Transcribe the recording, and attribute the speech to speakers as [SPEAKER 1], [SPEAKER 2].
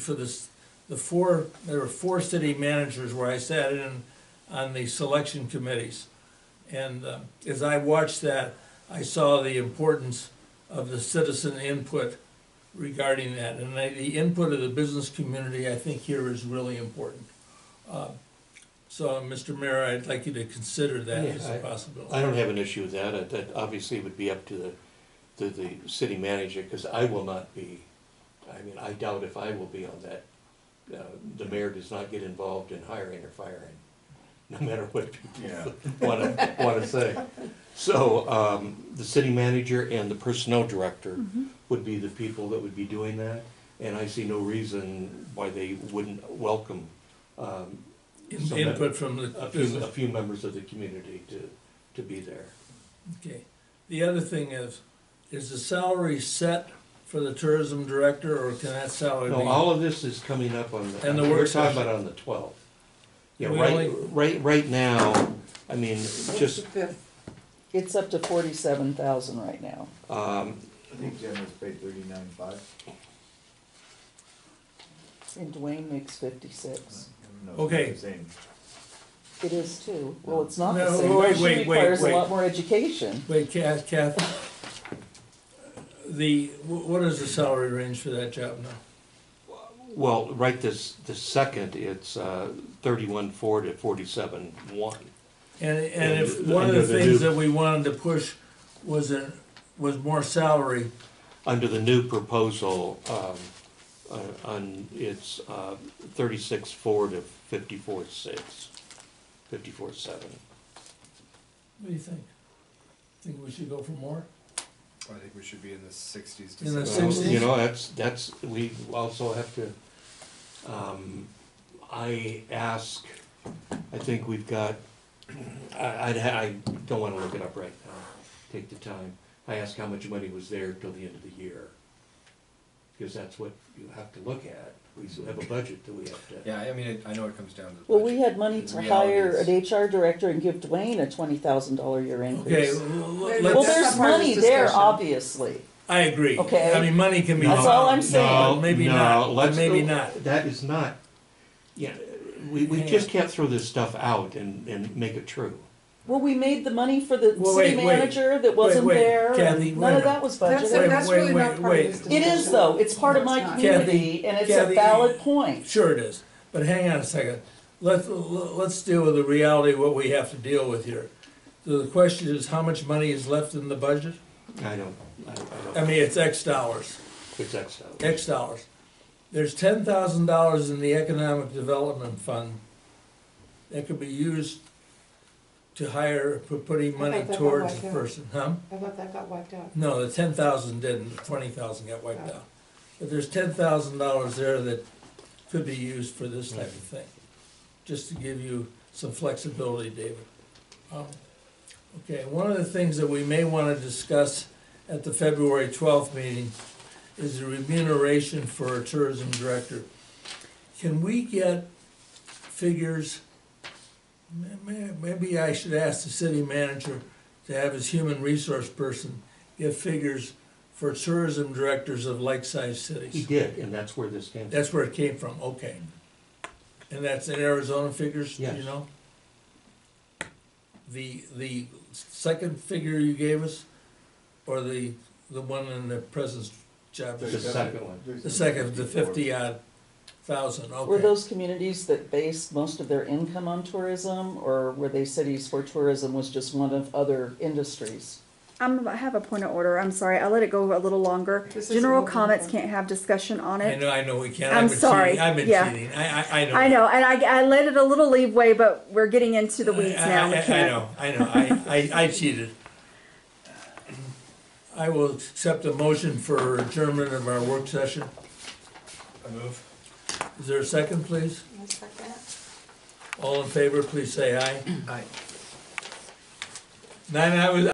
[SPEAKER 1] for this, the four, there were four city managers where I sat in on the selection committees. And uh, as I watched that, I saw the importance of the citizen input regarding that. And I- the input of the business community, I think here is really important. Uh, So, Mr. Mayor, I'd like you to consider that as
[SPEAKER 2] Yeah,
[SPEAKER 1] a
[SPEAKER 2] I-
[SPEAKER 1] possibility.
[SPEAKER 2] I don't have an issue with that. Uh, That obviously would be up to the, to the city manager, because I will not be, I mean, I doubt if I will be on that. Uh, The mayor does not get involved in hiring or firing, no matter what
[SPEAKER 3] Yeah,
[SPEAKER 2] people want to, want to say. So um, the city manager and the personnel director would be the people that would be doing that. And I see no reason why they wouldn't welcome um,
[SPEAKER 1] In-
[SPEAKER 2] so that-
[SPEAKER 1] Input from the
[SPEAKER 2] a few, a
[SPEAKER 1] business
[SPEAKER 2] few members of the community to, to be there.
[SPEAKER 1] Okay, the other thing is, is the salary set for the tourism director, or can that salary
[SPEAKER 2] No,
[SPEAKER 1] be?
[SPEAKER 2] all of this is coming up on, the
[SPEAKER 1] And the work
[SPEAKER 2] we're talking
[SPEAKER 1] session.
[SPEAKER 2] about on the twelfth. Yeah,
[SPEAKER 1] We
[SPEAKER 2] right,
[SPEAKER 1] only-
[SPEAKER 2] right, right now, I mean, just,
[SPEAKER 4] It's up to forty-seven thousand right now.
[SPEAKER 2] um,
[SPEAKER 3] I think Jen was paid thirty-nine five.
[SPEAKER 4] And Dwayne makes fifty-six.
[SPEAKER 1] Okay.
[SPEAKER 3] Same.
[SPEAKER 4] It is too. Well, it's not the
[SPEAKER 1] No,
[SPEAKER 4] same.
[SPEAKER 1] wait,
[SPEAKER 4] She
[SPEAKER 1] wait, wait,
[SPEAKER 4] requires a
[SPEAKER 1] wait.
[SPEAKER 4] lot more education.
[SPEAKER 1] Wait, Kath, Kath, the, wh- what is the salary range for that job now?
[SPEAKER 2] well, right this, this second, it's, uh, thirty-one four to forty-seven one.
[SPEAKER 1] And, and if,
[SPEAKER 2] And
[SPEAKER 1] one of
[SPEAKER 2] under
[SPEAKER 1] the
[SPEAKER 2] the
[SPEAKER 1] things
[SPEAKER 2] new-
[SPEAKER 1] that we wanted to push was a, was more salary,
[SPEAKER 2] Under the new proposal, um, uh, on, it's, uh, thirty-six four to fifty-four six, fifty-four seven.
[SPEAKER 1] what do you think? Think we should go for more?
[SPEAKER 5] I think we should be in the sixties to
[SPEAKER 1] In the
[SPEAKER 5] seventies.
[SPEAKER 2] Well,
[SPEAKER 1] Sixty?
[SPEAKER 2] You know, that's, that's, we also have to, um, I ask, I think we've got, I, I'd ha- I don't wanna look it up right now, take the time. I ask how much money was there till the end of the year. Cause that's what you have to look at. We still have a budget that we have to.
[SPEAKER 5] Yeah, I mean, it, I know it comes down to. the
[SPEAKER 4] Well, we
[SPEAKER 5] budget.
[SPEAKER 4] had money
[SPEAKER 5] The
[SPEAKER 4] to
[SPEAKER 5] reality
[SPEAKER 4] hire
[SPEAKER 5] is-
[SPEAKER 4] an HR director and give Dwayne a twenty thousand dollar year
[SPEAKER 1] Okay,
[SPEAKER 4] increase.
[SPEAKER 1] l-
[SPEAKER 6] Wait
[SPEAKER 1] l-
[SPEAKER 6] a
[SPEAKER 4] Well,
[SPEAKER 6] minute,
[SPEAKER 1] let's,
[SPEAKER 4] there's
[SPEAKER 6] that's not part of
[SPEAKER 4] money
[SPEAKER 6] this
[SPEAKER 4] there,
[SPEAKER 6] discussion.
[SPEAKER 4] obviously.
[SPEAKER 1] I agree.
[SPEAKER 4] Okay.
[SPEAKER 1] I mean, money can be
[SPEAKER 4] That's all I'm
[SPEAKER 1] found,
[SPEAKER 4] saying.
[SPEAKER 2] No,
[SPEAKER 1] but maybe
[SPEAKER 2] no,
[SPEAKER 1] not, but
[SPEAKER 2] let's-
[SPEAKER 1] maybe not.
[SPEAKER 2] That is not, yeah, we, we just can't throw this stuff out and, and make it true.
[SPEAKER 4] Well, we made the money for the
[SPEAKER 1] Well,
[SPEAKER 4] city
[SPEAKER 1] wait, wait.
[SPEAKER 4] manager that wasn't
[SPEAKER 1] wait,
[SPEAKER 4] there.
[SPEAKER 1] Kathy,
[SPEAKER 4] and
[SPEAKER 1] wait a
[SPEAKER 4] None of
[SPEAKER 1] minute.
[SPEAKER 4] that was
[SPEAKER 6] That's,
[SPEAKER 1] Wait,
[SPEAKER 4] budgeted.
[SPEAKER 6] that's
[SPEAKER 1] wait,
[SPEAKER 6] really
[SPEAKER 1] wait,
[SPEAKER 6] not part of
[SPEAKER 1] wait.
[SPEAKER 6] this
[SPEAKER 4] It
[SPEAKER 6] discussion.
[SPEAKER 4] is though. It's part of my
[SPEAKER 6] No, it's not.
[SPEAKER 4] community and it's a
[SPEAKER 1] Kathy-
[SPEAKER 4] valid point.
[SPEAKER 1] Sure it is, but hang on a second. Let's, let's deal with the reality of what we have to deal with here. The question is, how much money is left in the budget?
[SPEAKER 2] I don't, I don't, I
[SPEAKER 1] I
[SPEAKER 2] don't,
[SPEAKER 1] mean, it's X dollars,
[SPEAKER 2] it's X out.
[SPEAKER 1] X dollars. There's ten thousand dollars in the Economic Development Fund that could be used to hire, for putting money
[SPEAKER 6] thought that
[SPEAKER 1] towards
[SPEAKER 6] was
[SPEAKER 1] the
[SPEAKER 6] it.
[SPEAKER 1] person, huh?
[SPEAKER 6] I thought that got wiped out.
[SPEAKER 1] No, the ten thousand didn't, the twenty thousand got wiped out. But there's ten thousand dollars there that could be used for this type of thing, just to give you some flexibility, David. Um, Okay, one of the things that we may wanna discuss at the February twelfth meeting is the remuneration for a tourism director. Can we get figures? May- may- Maybe I should ask the city manager to have his human resource person give figures for tourism directors of like-sized
[SPEAKER 2] He
[SPEAKER 1] cities.
[SPEAKER 2] did, and that's where this came from.
[SPEAKER 1] That's where it came from, okay. And that's in Arizona figures, do you
[SPEAKER 2] Yes.
[SPEAKER 1] know? The, the second figure you gave us, or the, the one in the present job?
[SPEAKER 2] The second one.
[SPEAKER 1] The second, the fifty odd thousand,
[SPEAKER 4] Were
[SPEAKER 1] okay.
[SPEAKER 4] those communities that based most of their income on tourism, or were they cities where tourism was just one of other industries?
[SPEAKER 7] I'm, I have a point of order. I'm sorry. I let it go a little longer.
[SPEAKER 6] This is a
[SPEAKER 7] General
[SPEAKER 6] little
[SPEAKER 7] comments
[SPEAKER 6] longer.
[SPEAKER 7] can't have discussion on
[SPEAKER 1] I
[SPEAKER 7] it.
[SPEAKER 1] know, I know, we can't,
[SPEAKER 7] I'm
[SPEAKER 1] I've been
[SPEAKER 7] sorry,
[SPEAKER 1] cheating, I've been
[SPEAKER 7] yeah.
[SPEAKER 1] cheating, I, I, I know.
[SPEAKER 7] I know, and I, I let it a little leeway, but we're getting into the weeds
[SPEAKER 1] I-
[SPEAKER 7] now.
[SPEAKER 1] I-
[SPEAKER 7] We
[SPEAKER 1] I-
[SPEAKER 7] can't.
[SPEAKER 1] I know, I know, I, I, I cheated. I will accept a motion for adjournment of our work session.
[SPEAKER 5] I move.
[SPEAKER 1] Is there a second, please?
[SPEAKER 6] That's like that.
[SPEAKER 1] All in favor, please say aye.
[SPEAKER 5] Aye.
[SPEAKER 1] Nine hours,